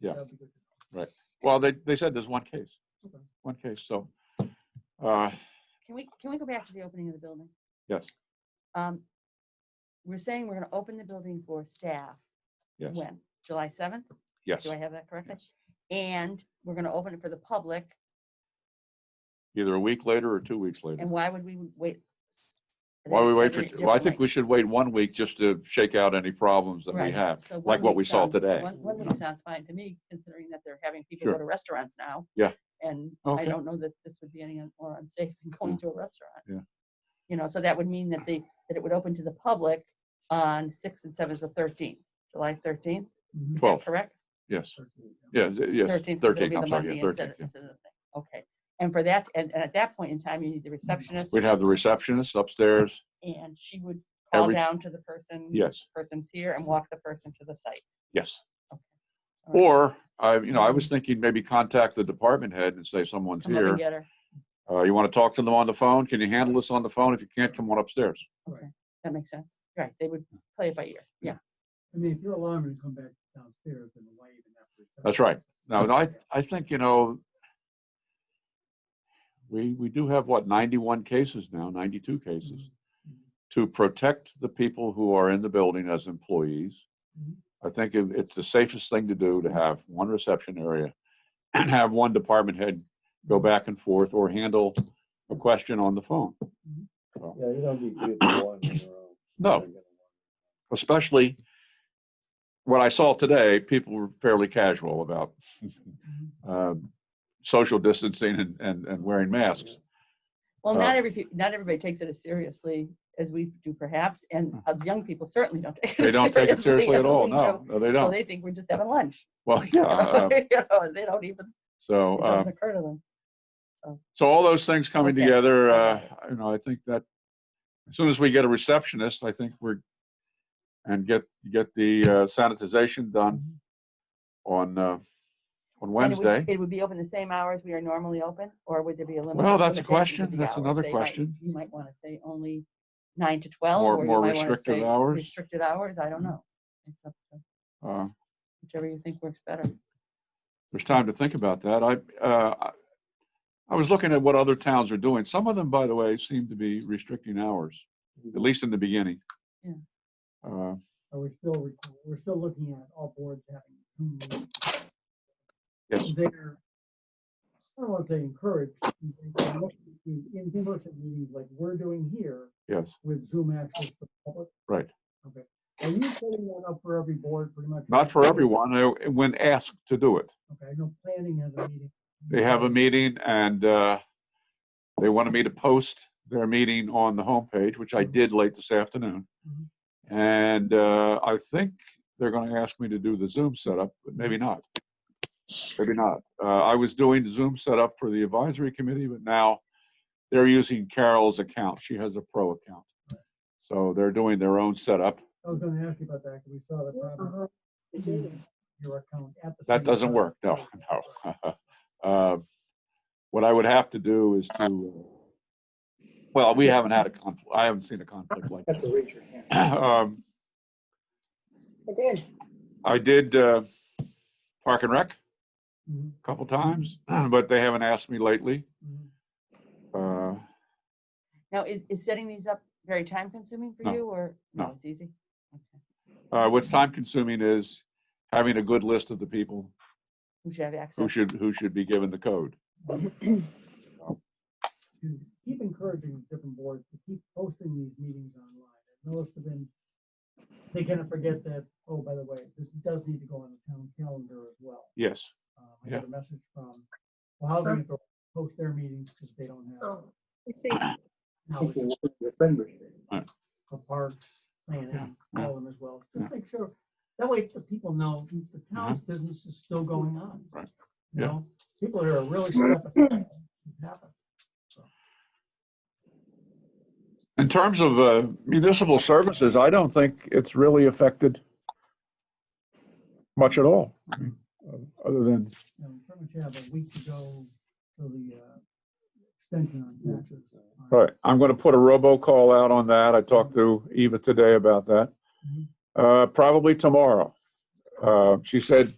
Yeah. That'd be good. Well, they, they said there's one case, Okay. one case, so, uh, Can we, can we go back to the opening of the building? yes, Um, We're saying we're gonna open the building for staff. yes, When? July seventh? yes. Do I have that correctly? And we're gonna open it for the public. Either a week later or two weeks later. And why would we wait? Are Why there- we are wait for, there well, I different think we ways? should wait one week just to shake out any problems that we Right. have, So like one what week we saw sounds- today. One, one week sounds fine to me, considering that they're having people Sure. go to restaurants now. Yeah. And Okay. Mm. I don't know that this would be any un- more unsafe than going to a restaurant. Yeah. You know, so that would mean that they, that it would open to the public on six and seven is the thirteenth, July thirteenth, Mhm. Twelve, correct? yes, Certainly, yeah. yes, yes, Thirteenth. thirteenth, I'm sorry, yeah, thirteenth. yeah. Okay, and for that, and, and at that point in time, you need the receptionist Mm. We'd have the receptionist upstairs, and she would call every- down to the person. yes, Person's here and walk the person to the site. yes. All right. Or, I, you know, I was thinking maybe contact the department head and say someone's Come up and here. get her. Uh, you want to talk to them on the phone? Can you handle this on the phone? If you can't, come on upstairs. That makes sense. Right, they would play it by ear. Yeah. I mean, if your alarm is come back downstairs and the light and after. That's right. No, no, I, I think, you know, we, we do have what, 91 cases now, 92 cases, to protect the people who are in the building as employees. Mhm. I think it- it's the safest thing to do to have one reception area and have one department head go back and forth or handle a question on the phone. Yeah, you don't need to do one on your own. No. especially what I saw today, people were fairly casual about Mm-hmm. um, social distancing and, and, and wearing masks. Well, Uh, not every, peo- not everybody takes it as seriously as we do perhaps, and uh, young people certainly don't take it Hmm. They as don't take it seriously at as all. we No, do. no, they So don't. they think we're just having lunch. Well, yeah. uh, You know, They don't even, So, it uh, doesn't occur to them. so all those things coming Okay. together, uh, you know, I think that as soon as we get a receptionist, I think we're, and get, get the uh, sanitization done on, uh, on Mm-hmm. And it would- Wednesday. It would be open the same hours we are normally open, or would there be a limit? Well, that's a limitation to question. the That's hours? another They might- question. You might want to say only nine to 12. More- or you more might wanna restrictive say hours? Hmm. Restricted hours, I don't know. It's up to Uh, Whichever you think works better. there's time to think about that. I, uh, I- I was looking at what other towns are doing. Some of them, by the way, seem to be restricting hours, at least in the beginning. Yeah. Uh, Are we still, re- we're still looking at all boards having Zoom meetings. yes, They're, I don't want to say encouraged, but they must do in-person meetings like we're doing here yes, with Zoom access to the public. right. Are you setting that up for every board pretty much? Not for everyone, uh, when asked to do it. Okay, I know planning has a meeting. They have a meeting and, uh, they wanted me to post their meeting on the homepage, which I did late this afternoon. Mhm. And, uh, I think they're gonna ask me to do the Zoom setup, but maybe not. Maybe not. Uh, I was doing Zoom setup for the advisory committee, but now they're using Carol's account. She has a pro account. So they're doing their own setup. I was gonna ask you about that, because we saw the problem. in Your account at the. That same doesn't time. work, no, no. Uh, What I would have to do is to, uh, well, we haven't had a conflict, I haven't seen a conflict like Have to raise your hand. that. Um, I did. I did uh, Park and Rec Mhm, a couple times, but they haven't asked me lately. mhm. Uh, Now, is, is setting these up very time consuming for No. you or? No. It's easy. Okay. uh, What's time consuming is having a good list of the people Who should have access? who should, who should be given the code. To Keep encouraging different boards to keep posting these meetings online. I've noticed have been, they kind of forget that, oh, by the way, this does need to go on the town calendar as well. Yes, Um, I got a message from, well, how's it going post their meetings because they don't have Oh, I see. knowledge December. of parks, planning, yeah. all of them as well. Yeah. Mm-hmm. Just make sure, that way the people know the town's business is still going on. Right. You Yeah. know, people here are really stepping up. Happen. In terms of uh, municipal services, I don't think it's really affected much at all. I mean, uh, Other than, you know, we pretty much have a week to go till the uh, extension on taxes. on- all right, I'm going to put a robocall out on that. I talked to Eva today about that. Mhm. Uh, Probably tomorrow. Uh, She said